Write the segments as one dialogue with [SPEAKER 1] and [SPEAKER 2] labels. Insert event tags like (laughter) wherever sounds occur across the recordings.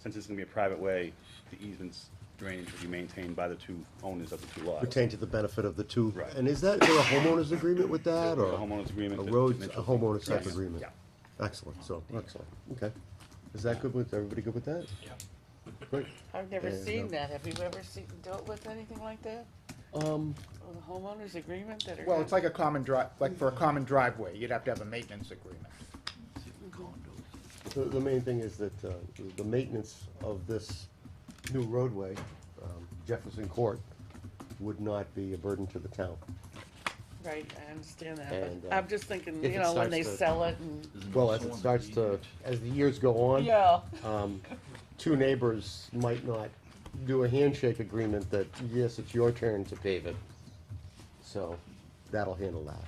[SPEAKER 1] since it's gonna be a private way, the easements drainage will be maintained by the two owners of the two lots.
[SPEAKER 2] pertain to the benefit of the two.
[SPEAKER 1] Right.
[SPEAKER 2] And is that, there a homeowners agreement with that,
[SPEAKER 1] There's
[SPEAKER 2] or?
[SPEAKER 1] a homeowners agreement
[SPEAKER 2] A
[SPEAKER 1] that
[SPEAKER 2] roads, a
[SPEAKER 1] Mitchell-
[SPEAKER 2] homeowners type
[SPEAKER 1] Yes,
[SPEAKER 2] agreement?
[SPEAKER 1] yeah.
[SPEAKER 2] Excellent, so, excellent, okay. Is that good with, everybody good with that?
[SPEAKER 3] Yeah.
[SPEAKER 2] Great.
[SPEAKER 4] I've never
[SPEAKER 2] Yeah, no.
[SPEAKER 4] seen that. Have you ever seen, dealt with anything like that?
[SPEAKER 2] Um,
[SPEAKER 4] With a homeowner's agreement that are.
[SPEAKER 5] Well, it's like a common drive, like for a common driveway, you'd have to have a maintenance agreement.
[SPEAKER 2] the, the main thing is that, uh, the- the maintenance of this new roadway, um, Jefferson Court, would not be a burden to the town.
[SPEAKER 4] Right, I understand that,
[SPEAKER 2] And,
[SPEAKER 4] but
[SPEAKER 2] uh,
[SPEAKER 4] I'm just thinking,
[SPEAKER 2] if
[SPEAKER 4] you
[SPEAKER 2] it
[SPEAKER 4] know, when
[SPEAKER 2] starts
[SPEAKER 4] they
[SPEAKER 2] to-
[SPEAKER 4] sell it and,
[SPEAKER 2] Well, as it starts to, as the years go on.
[SPEAKER 4] yeah.
[SPEAKER 2] um, two neighbors might not do a handshake agreement that, yes, it's your turn to pave it. So, that'll handle that.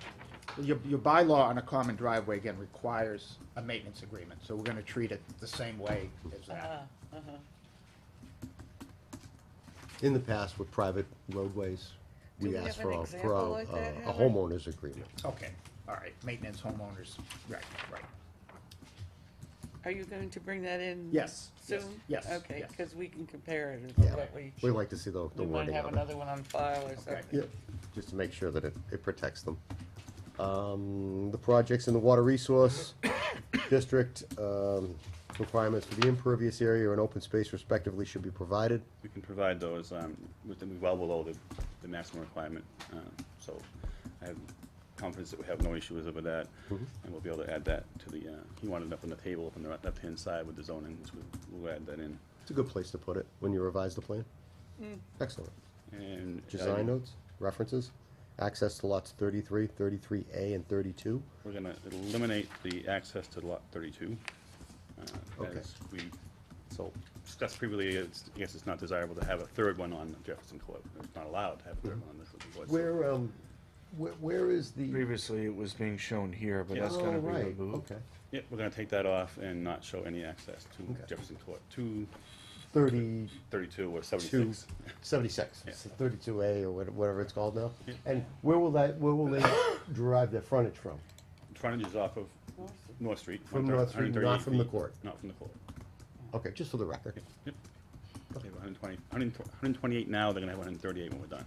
[SPEAKER 5] Your, your bylaw on a common driveway, again, requires a maintenance agreement, so we're gonna treat it the same way as that.
[SPEAKER 4] Uh-huh, uh-huh.
[SPEAKER 2] In the past with private roadways,
[SPEAKER 4] Do
[SPEAKER 2] we
[SPEAKER 4] we
[SPEAKER 2] asked
[SPEAKER 4] have
[SPEAKER 2] for
[SPEAKER 4] an
[SPEAKER 2] a, for
[SPEAKER 4] example
[SPEAKER 2] a,
[SPEAKER 4] like that,
[SPEAKER 2] a
[SPEAKER 4] Howard?
[SPEAKER 2] homeowner's agreement.
[SPEAKER 5] Okay, all right, maintenance homeowners, right, right.
[SPEAKER 4] Are you going to bring that in?
[SPEAKER 5] Yes, yes,
[SPEAKER 4] Soon?
[SPEAKER 5] yes,
[SPEAKER 4] Okay,
[SPEAKER 5] yes.
[SPEAKER 4] cause we can compare it with
[SPEAKER 2] Yeah,
[SPEAKER 4] what we.
[SPEAKER 2] we like to see the, the
[SPEAKER 4] We might
[SPEAKER 2] wording
[SPEAKER 4] have
[SPEAKER 2] of it.
[SPEAKER 4] another one on file or something.
[SPEAKER 2] Yeah, just to make sure that it, it protects them. Um, the projects in the water resource (coughs) district, um, requirements for the impervious area and open space respectively should be provided.
[SPEAKER 1] We can provide those, um, with, well below the, the maximum requirement, uh, so I have confidence that we have no issues over that,
[SPEAKER 2] Mm-hmm.
[SPEAKER 1] and we'll be able to add that to the, uh, he wanted up on the table, up on the left-hand side with the zoning, which we'll, we'll add that in.
[SPEAKER 2] It's a good place to put it when you revise the plan. Excellent.
[SPEAKER 1] And. uh,
[SPEAKER 2] Design notes, references, access to lots 33, 33 A, and thirty-two.
[SPEAKER 1] We're gonna eliminate the access to lot thirty-two. uh,
[SPEAKER 2] Okay.
[SPEAKER 1] As we, so, discussed previously, it's, yes, it's not desirable to have a third one on Jefferson Court, it's not allowed to have a third one on this one. so-
[SPEAKER 2] Mm-hmm. Where, um, where, where is the?
[SPEAKER 3] Previously, it was being shown here, but
[SPEAKER 1] Yeah.
[SPEAKER 3] that's
[SPEAKER 2] Oh,
[SPEAKER 3] gonna be
[SPEAKER 2] right,
[SPEAKER 3] removed.
[SPEAKER 2] okay.
[SPEAKER 1] Yep, we're gonna take that off and not show any access to
[SPEAKER 2] Okay.
[SPEAKER 1] Jefferson Court, two
[SPEAKER 2] Thirty-two,
[SPEAKER 1] thirty-two or seventy-six.
[SPEAKER 2] seventy-six,
[SPEAKER 1] Yeah.
[SPEAKER 2] thirty-two A or what- whatever it's called now.
[SPEAKER 1] Yeah.
[SPEAKER 2] And where will that, where will they derive their frontage from?
[SPEAKER 1] Frontage is off of North Street.
[SPEAKER 2] From North Street,
[SPEAKER 1] 138
[SPEAKER 2] not from the
[SPEAKER 1] feet,
[SPEAKER 2] court.
[SPEAKER 1] Not from the court.
[SPEAKER 2] Okay, just for the record.
[SPEAKER 1] Yep. They have 120 128 now, they're gonna have one hundred and thirty-eight when we're done.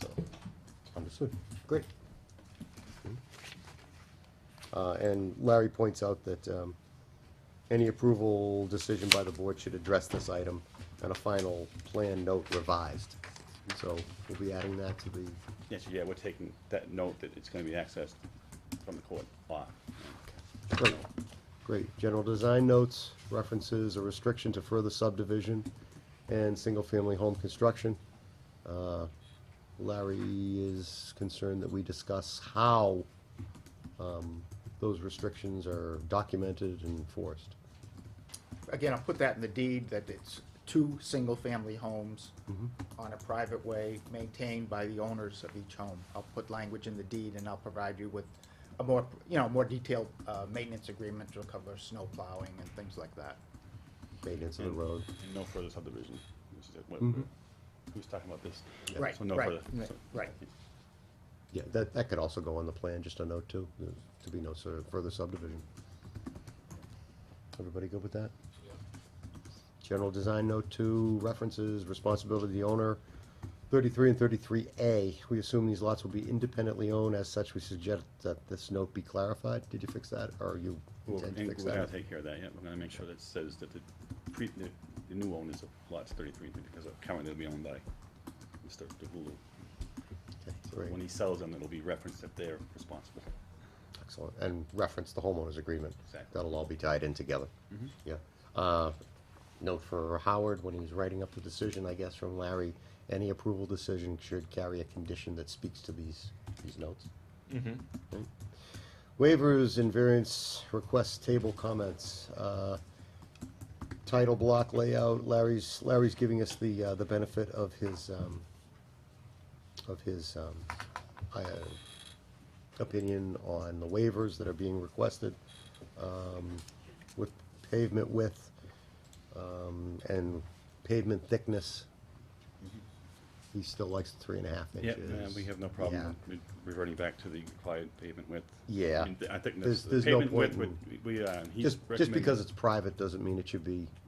[SPEAKER 1] So,
[SPEAKER 2] Understood. Great. Uh, and Larry points out that, um, any approval decision by the board should address this item and a final plan note revised. So we'll be adding that to the,
[SPEAKER 1] yes, yeah, we're taking that note that it's gonna be accessed from the court off.
[SPEAKER 2] great, great. General design notes, references, a restriction to further subdivision and single-family home construction. Uh, Larry is concerned that we discuss how, um, those restrictions are documented and enforced.
[SPEAKER 5] Again, I'll put that in the deed, that it's two single-family homes on a private way maintained by the owners of each home. I'll put language in the deed and I'll provide you with a more, you know, more detailed, uh, maintenance agreement to cover snow plowing and things like that.
[SPEAKER 2] maintenance of the road.
[SPEAKER 1] And no further subdivision, which is what,
[SPEAKER 2] Mhm.
[SPEAKER 1] who's talking about this?
[SPEAKER 2] Yeah.
[SPEAKER 5] Right,
[SPEAKER 1] So no
[SPEAKER 5] right,
[SPEAKER 1] further-
[SPEAKER 5] right,
[SPEAKER 1] so-
[SPEAKER 5] right.
[SPEAKER 2] Yeah, that, that could also go on the plan, just a note too, there- to be no sur- further subdivision. Everybody good with that? General design note two, references, responsibility of the owner, thirty-three and thirty-three A. We assume these lots will be independently owned, as such, we suggest that this note be clarified. Did you fix that, or you
[SPEAKER 1] We're
[SPEAKER 2] intend to
[SPEAKER 1] we're
[SPEAKER 2] fix
[SPEAKER 1] gonna
[SPEAKER 2] that?
[SPEAKER 1] take care of that, yeah, we're gonna make sure that says that the pre, the, the new owners of lots thirty-three, because currently they'll be owned by Mr. DeVulu.
[SPEAKER 2] Okay,
[SPEAKER 1] So
[SPEAKER 2] great.
[SPEAKER 1] when he sells them, it'll be referenced that they're responsible.
[SPEAKER 2] Excellent, and reference the homeowners agreement.
[SPEAKER 1] Exactly.
[SPEAKER 2] That'll all be tied in together. Yeah. Uh, Note for Howard, when he was writing up the decision, I guess, from Larry, any approval decision should carry a condition that speaks to these, these notes.
[SPEAKER 3] Mhm.
[SPEAKER 2] Right. Waivers and variance requests table comments. Uh, Title block layout, Larry's, Larry's giving us the, uh, the benefit of his, um, of his, um, I, opinion on the waivers that are being requested, um, with pavement width, um, and pavement thickness. He still likes the three and a half
[SPEAKER 1] Mm-hmm. Yeah,
[SPEAKER 2] inches.
[SPEAKER 1] uh, we have no
[SPEAKER 2] Yeah.
[SPEAKER 1] problem with reverting back to the required pavement width.
[SPEAKER 2] Yeah.
[SPEAKER 1] I mean, I think
[SPEAKER 2] There's-
[SPEAKER 1] the
[SPEAKER 2] there's no
[SPEAKER 1] pavement width
[SPEAKER 2] point
[SPEAKER 1] would, we, uh, he's
[SPEAKER 2] Just, just
[SPEAKER 1] recommending-
[SPEAKER 2] because it's private doesn't mean it should be